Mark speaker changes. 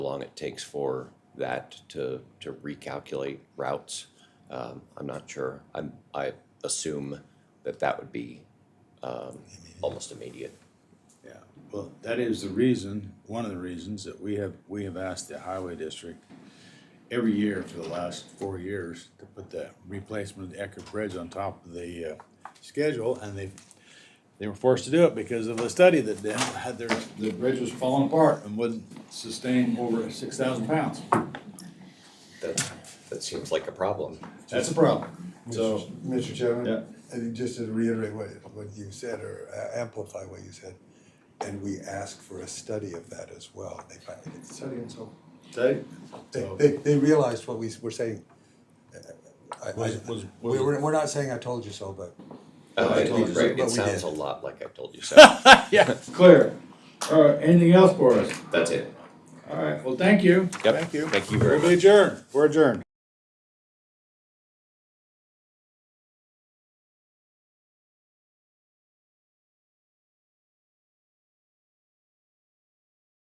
Speaker 1: long it takes for that to, to recalculate routes. Um, I'm not sure. I'm, I assume that that would be, um, almost immediate.
Speaker 2: Yeah, well, that is the reason, one of the reasons that we have, we have asked the highway district every year for the last four years to put the replacement of the Eckerd Bridge on top of the, uh, schedule, and they, they were forced to do it because of a study that they had their, the bridge was falling apart and wouldn't sustain over six thousand pounds.
Speaker 1: That, that seems like a problem.
Speaker 2: That's a problem, so,
Speaker 3: Mr. Chairman?
Speaker 2: Yeah.
Speaker 3: I think just to reiterate what, what you said, or a- amplify what you said, and we asked for a study of that as well. They finally did the study, and so
Speaker 2: they,
Speaker 3: they,
Speaker 2: So-
Speaker 3: they, they realized what we s- were saying. Uh, I- I-
Speaker 2: Was- was-
Speaker 3: We were, we're not saying I told you so, but
Speaker 1: Uh,
Speaker 3: I told you so,
Speaker 1: right,
Speaker 3: but
Speaker 1: It
Speaker 3: we
Speaker 1: sounds
Speaker 3: did.
Speaker 1: a lot like I told you so.
Speaker 2: yeah, clear. All right, anything else for us?
Speaker 1: That's it.
Speaker 2: All right, well, thank you.
Speaker 1: Yep.
Speaker 2: Thank you.
Speaker 1: Thank you very
Speaker 2: We'll
Speaker 1: much.
Speaker 2: be adjourned, we're adjourned.